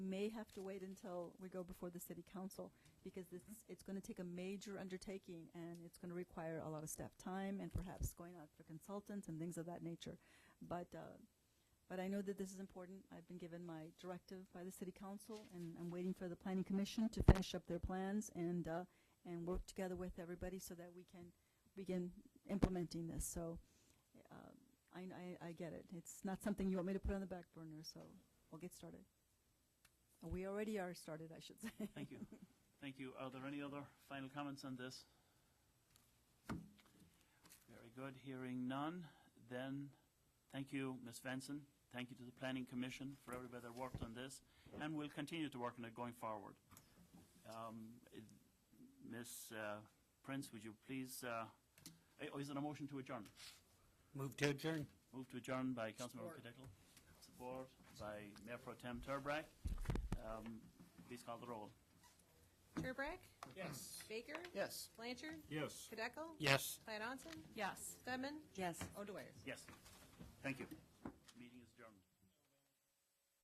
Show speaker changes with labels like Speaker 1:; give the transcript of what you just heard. Speaker 1: may have to wait until we go before the city council, because it's, it's going to take a major undertaking, and it's going to require a lot of staff time, and perhaps going out for consultants and things of that nature. But, uh, but I know that this is important. I've been given my directive by the city council, and I'm waiting for the planning commission to finish up their plans and, uh, and work together with everybody so that we can begin implementing this. So uh, I, I, I get it. It's not something you want me to put on the back burner, so we'll get started. We already are started, I should say.
Speaker 2: Thank you. Thank you. Are there any other final comments on this? Very good. Hearing none, then, thank you, Ms. Benson. Thank you to the Planning Commission for everybody that worked on this, and we will continue to work on it going forward. Um, it- Ms. uh, Prince, would you please, uh, eh, oh, is it a motion to adjourn?
Speaker 3: Move to adjourn.
Speaker 2: Moved to adjourn by Councilmember Cadickle, support by Mayor Pro Tem Turbrack. Um, Please call the roll.
Speaker 4: Turbrack? Yes. Baker?
Speaker 3: Yes.
Speaker 4: Blanchard?
Speaker 5: Yes.
Speaker 4: Kadeco?
Speaker 3: Yes.
Speaker 4: Platt Onson?
Speaker 1: Yes.
Speaker 4: Stedman?
Speaker 1: Yes.
Speaker 4: O'Dwyer?
Speaker 2: Yes, thank you.